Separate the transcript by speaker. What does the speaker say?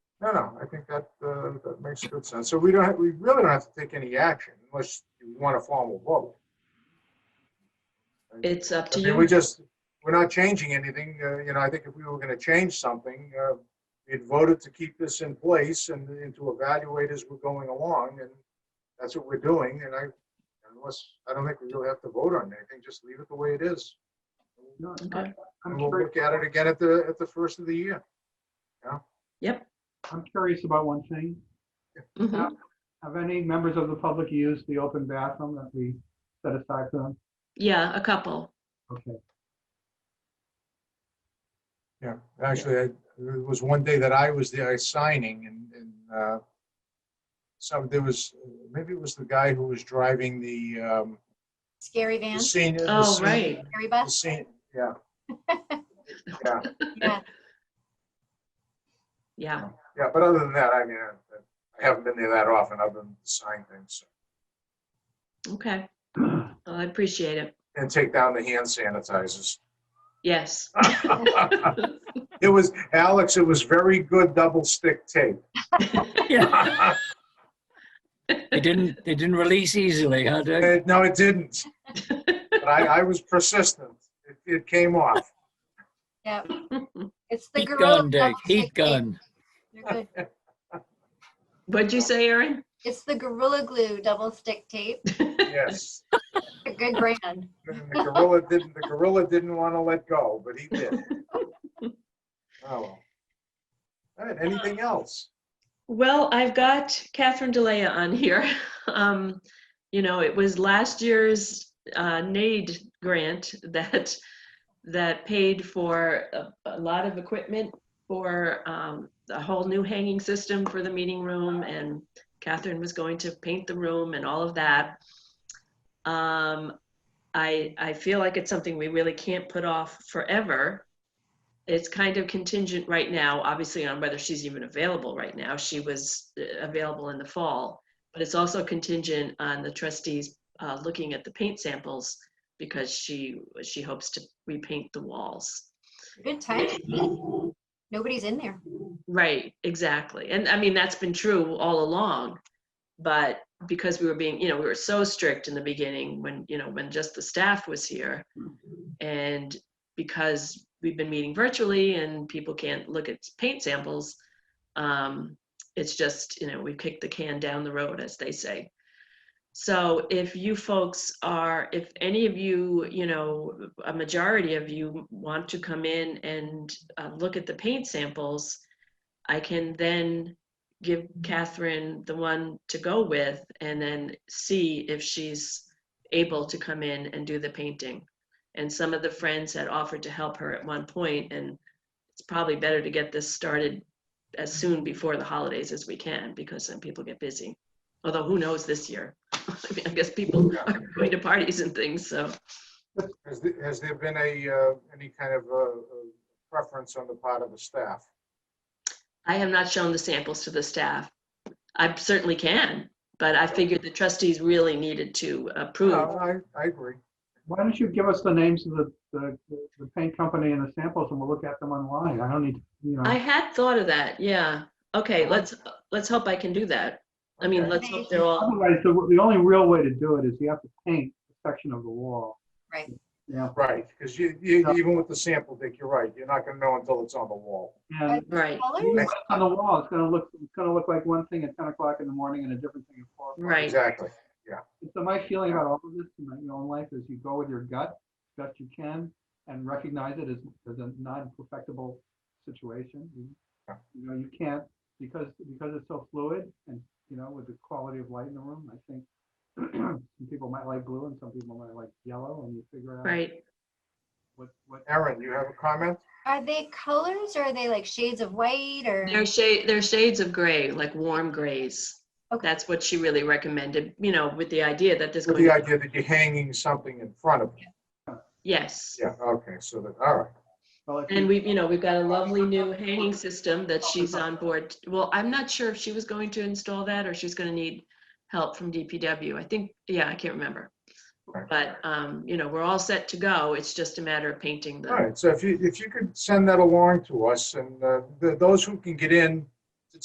Speaker 1: No, no, I think that, uh, that makes good sense. So we don't, have- we really don't have to take any action unless you want a formal vote.
Speaker 2: It's up
Speaker 1: I
Speaker 2: to
Speaker 1: mean, we
Speaker 2: you.
Speaker 1: just, we're not changing anything, uh, you know, I think if we were gonna change something, uh, we'd voted to keep this in place and, and to evaluate as we're going along, and that's what we're doing, and I, unless, I don't think we really have to vote on anything, just leave it the way it is.
Speaker 3: No,
Speaker 2: Okay.
Speaker 3: I'm
Speaker 1: And we'll
Speaker 3: curious,
Speaker 1: look at it again at the, at the first of the year.
Speaker 3: I'm curious about one thing.
Speaker 2: Mhm.
Speaker 3: Have any members of the public used the open bathroom that we set aside for them?
Speaker 2: Yeah, a couple.
Speaker 3: Okay,
Speaker 1: Yeah, actually, I, there was one day that I was there signing and, and, uh, some, there was, maybe it was the guy who was driving the, um,
Speaker 4: Scary
Speaker 1: the
Speaker 4: van,
Speaker 1: senior. the
Speaker 2: Oh,
Speaker 1: senior-
Speaker 2: right.
Speaker 4: scary
Speaker 1: the
Speaker 4: bus,
Speaker 1: senior- Yeah. Yeah,
Speaker 4: yeah.
Speaker 2: Yeah.
Speaker 1: yeah, but other than that, I mean, I I haven't been there that often, I've been signing things
Speaker 2: Okay. Well, I appreciate it.
Speaker 1: and take down the hand sanitizers.
Speaker 2: Yes.
Speaker 1: It was, Alex, it was very good double stick tape.
Speaker 5: Yeah, they didn't, they didn't release easily, huh, Dick?
Speaker 1: Uh, No, it didn't. But I, I was persistent. It, it came off.
Speaker 4: Yeah, it's the
Speaker 5: Heat
Speaker 4: gorilla.
Speaker 5: gun, Dick, heat
Speaker 4: glue tape.
Speaker 5: gun.
Speaker 4: You're good.
Speaker 2: What'd you say, Erin?
Speaker 4: It's the gorilla glue double stick tape.
Speaker 1: Yes.
Speaker 4: A good brand.
Speaker 1: And The gorilla didn't, the gorilla didn't want to let go, but he did. Oh, well. All right, anything else?
Speaker 2: Well, I've got Catherine Delea on here. Um, you know, it was last year's uh, NAID grant that that paid for a, a lot of equipment for um, a whole new hanging system for the meeting room, and Catherine was going to paint the room and all of that. Um, I I feel like it's something we really can't put off forever it's kind of contingent right now, obviously, on whether she's even available right now. She was uh, available in the fall, but it's also contingent on the trustees uh, looking at the paint samples because she she hopes to repaint the walls.
Speaker 4: Good time. Nobody's in there.
Speaker 2: Right, exactly. And I mean, that's been true all along. But because we were being, you know, we were so strict in the beginning when, you know, when just the staff was here. And because we've been meeting virtually and people can't look at paint samples, um, it's just, you know, we've kicked the can down the road, as they say. So if you folks are, if any of you, you know, a majority of you want to come in and uh, look at the paint samples, I can then give Catherine the one to go with and then see if she's able to come in and do the painting. And some of the friends had offered to help her at one point, and it's probably better to get this started as soon before the holidays as we can because then people get busy. Although who knows this year? I mean, I guess people are going to parties and things, so.
Speaker 1: Has, the- has there been a, uh, any kind of, uh, uh, preference on the part of the staff?
Speaker 2: I have not shown the samples to the staff. I certainly can, but I figured the trustees really needed to approve.
Speaker 1: No, I, I agree.
Speaker 3: why don't you give us the names of the, the, the paint company and the samples and we'll look at them online. I don't need, to, you know.
Speaker 2: I had thought of that, yeah. Okay, let's, let's hope I can do that. I mean, let's hope they're all,
Speaker 3: Otherwise, the, the only real way to do it is you have to paint a section of the wall.
Speaker 4: Right.
Speaker 3: Yeah,
Speaker 1: Right, because you, you, even with the sample, Dick, you're right, you're not gonna know until it's on the wall.
Speaker 3: and
Speaker 2: right,
Speaker 4: Colors?
Speaker 3: even on the wall, it's gonna look, it's gonna look like one thing at ten o'clock in the morning and a different thing at four. o'clock.
Speaker 2: right.
Speaker 1: Exactly.
Speaker 3: And So my feeling about all of this in my own life is you go with your gut, best you can, and recognize it as, as a non-perfectible situation. You- You know, you can't, because, because it's so fluid and, you know, with the quality of light in the room, I think some people might like blue and some people might like yellow and you figure out
Speaker 2: Right.
Speaker 3: what, what.
Speaker 1: Erin, you have a comment?
Speaker 4: Are they colors or are they like shades of white or?
Speaker 2: They're shade, they're shades of gray, like warm grays.
Speaker 4: Okay.
Speaker 2: That's what she really recommended, you know, with the idea that there's
Speaker 1: With
Speaker 2: going
Speaker 1: the
Speaker 2: to,
Speaker 1: idea that you're hanging something in front of you.
Speaker 2: yes.
Speaker 1: Yeah, okay, so that, all right.
Speaker 3: well, if
Speaker 2: And
Speaker 3: you-
Speaker 2: we've, you know, we've got a lovely new hanging system that she's on board. Well, I'm not sure if she was going to install that or she's gonna need help from DPW. I think, yeah, I can't remember.
Speaker 1: Right.
Speaker 2: But, um, you know, we're all set to go. It's just a matter of painting
Speaker 1: All
Speaker 2: the,
Speaker 1: right, so if you, if you could send that along to us, and uh, th- those who can get in